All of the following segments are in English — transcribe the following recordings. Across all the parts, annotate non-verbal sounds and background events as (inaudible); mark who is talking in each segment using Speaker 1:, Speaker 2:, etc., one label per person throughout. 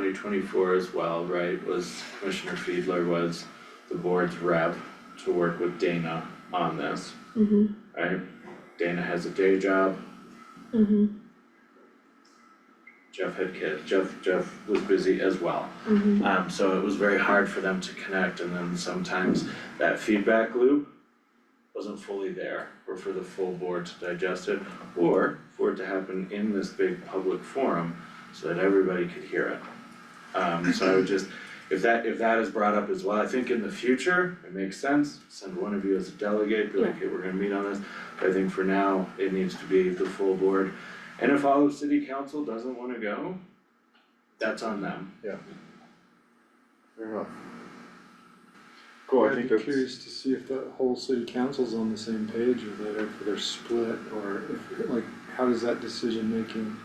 Speaker 1: twenty twenty-four as well, right, was Commissioner Fiedler was the board's rep to work with Dana on this,
Speaker 2: Mhm,
Speaker 1: right? Dana has a day job,
Speaker 2: mhm,
Speaker 1: Jeff had kids, Jeff, Jeff was busy as well.
Speaker 2: mhm,
Speaker 1: Um, so it was very hard for them to connect and then sometimes that feedback loop wasn't fully there or for the full board to digest it or for it to happen in this big public forum so that everybody could hear it. Um, so I would just, if that, if that is brought up as well, I think in the future, it makes sense, send one of you as a delegate, be like, hey, we're gonna meet on this. But I think for now, it needs to be the full board. And if all of city council doesn't wanna go, that's on them.
Speaker 3: Fair enough. Cool, I
Speaker 4: I'd
Speaker 3: think
Speaker 4: be
Speaker 3: that's,
Speaker 4: curious to see if the whole city council's on the same page or that if they're split or if, like, how does that decision making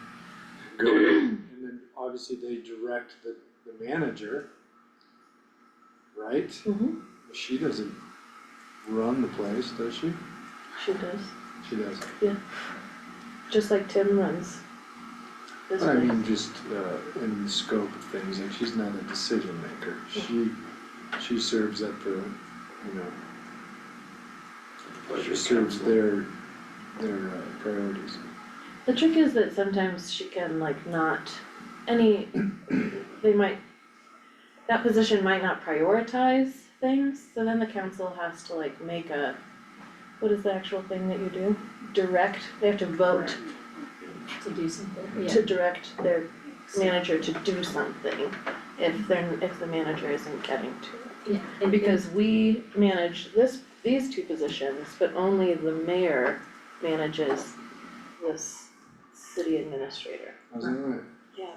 Speaker 4: go? And then obviously they direct the, the manager, right?
Speaker 2: mhm,
Speaker 4: She doesn't run the place, does she?
Speaker 2: she does,
Speaker 4: She does.
Speaker 2: just like Tim runs. This
Speaker 4: I
Speaker 2: way,
Speaker 4: mean, just, uh, in the scope of things, like she's not a decision maker. She, she serves at the, you know,
Speaker 1: Pleasure,
Speaker 4: She serves
Speaker 1: counsel.
Speaker 4: their, their uh, priorities.
Speaker 2: the trick is that sometimes she can like not,
Speaker 4: (clears throat)
Speaker 2: any, they might, that position might not prioritize things, so then the council has to like make a, what is the actual thing that you do? Direct, they have to vote
Speaker 5: to do something, yeah.
Speaker 2: to direct their manager to do something if they're, if the manager isn't getting to it.
Speaker 5: Yeah, and because
Speaker 2: Because we manage this, these two positions, but only the mayor manages this city administrator.
Speaker 4: How's that right?
Speaker 2: Yeah.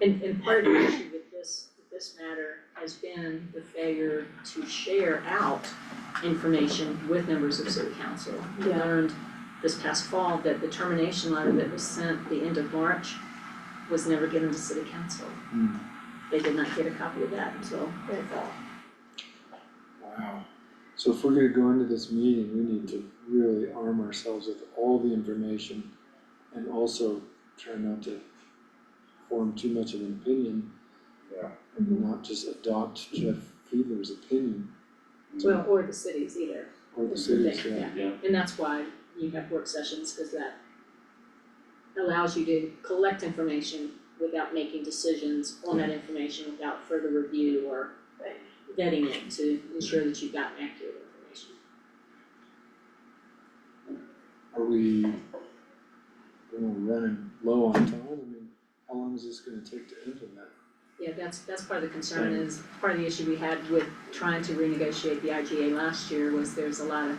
Speaker 5: and and part of the issue with this, with this matter has been the failure to share out information with members of city council. We
Speaker 2: Yeah.
Speaker 5: learned this past fall that the termination letter that was sent the end of March was never given to city council.
Speaker 4: Hmm.
Speaker 5: They did not get a copy of that until the fall.
Speaker 4: Wow. So if we're gonna go into this meeting, we need to really arm ourselves with all the information and also try not to form too much of an opinion.
Speaker 3: Yeah.
Speaker 4: And not just adopt Jeff Fiedler's opinion
Speaker 5: Well, or the cities either,
Speaker 4: or the
Speaker 5: is the
Speaker 4: city's,
Speaker 5: thing,
Speaker 4: yeah.
Speaker 5: yeah.
Speaker 1: Yeah.
Speaker 5: And that's why you have work sessions, cause that allows you to collect information without making decisions on that information without further review or
Speaker 2: Right.
Speaker 5: vetting it to ensure that you've got accurate information.
Speaker 4: Are we gonna running low on time? I mean, how long is this gonna take to implement?
Speaker 5: Yeah, that's, that's part of the concern is, part of the issue we had with trying to renegotiate the IGA last year was there's a lot of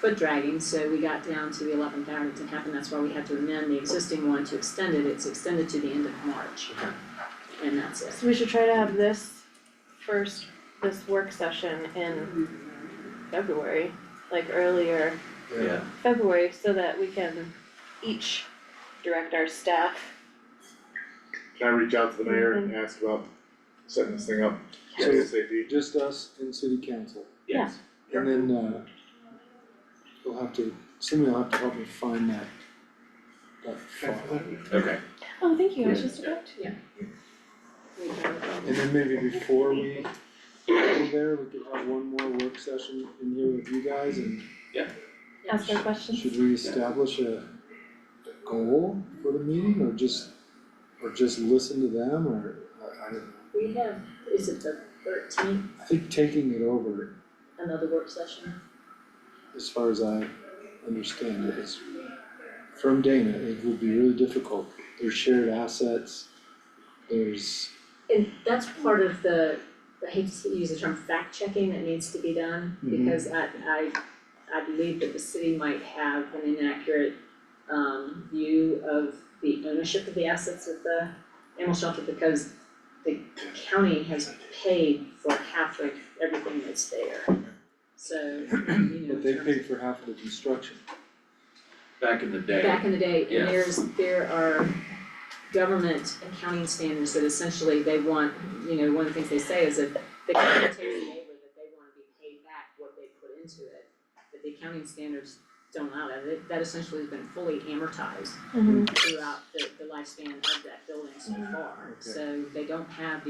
Speaker 5: foot dragging, so we got down to the eleventh hour, it didn't happen, that's why we had to amend the existing one to extend it, it's extended to the end of March. And that's it.
Speaker 2: So we should try to have this first, this work session in February, like earlier
Speaker 1: Yeah,
Speaker 2: February, so that we can each direct our staff.
Speaker 3: can I reach out to the mayor and ask about setting this thing up
Speaker 4: So-
Speaker 3: ASAP?
Speaker 4: Just us and city council.
Speaker 1: yes.
Speaker 4: And then, uh, you'll have to, somebody will have to help me find that, that file.
Speaker 1: Okay.
Speaker 2: Oh, thank you, I was just about to.
Speaker 5: We can-
Speaker 4: And then maybe before we go there, we could have one more work session in here with you guys and
Speaker 2: Ask our questions.
Speaker 4: should we establish a goal for the meeting or just, or just listen to them or, I, I don't know.
Speaker 5: We have, is it the thirteenth,
Speaker 4: I think taking it over,
Speaker 5: another work session?
Speaker 4: as far as I understand it, is from Dana, it would be really difficult. There's shared assets, there's
Speaker 5: And that's part of the, I hate to use the term fact checking that needs to be done,
Speaker 4: Mhm.
Speaker 5: because I, I, I believe that the city might have an inaccurate um, view of the ownership of the assets of the animal shelter, because the county has paid for half of everything that's there. So, you know,
Speaker 4: But they
Speaker 5: in terms of-
Speaker 4: paid for half of the construction.
Speaker 1: Back in the day,
Speaker 5: back in the day,
Speaker 1: Yeah.
Speaker 5: and there's, there are government accounting standards that essentially they want, you know, one of the things they say is that the county takes the labor that they wanna be paid back what they put into it, but the accounting standards don't allow that, That- that essentially has been fully amortized
Speaker 2: Mhm.
Speaker 5: throughout the, the lifespan of that building so far,
Speaker 4: Okay.
Speaker 5: so they don't have the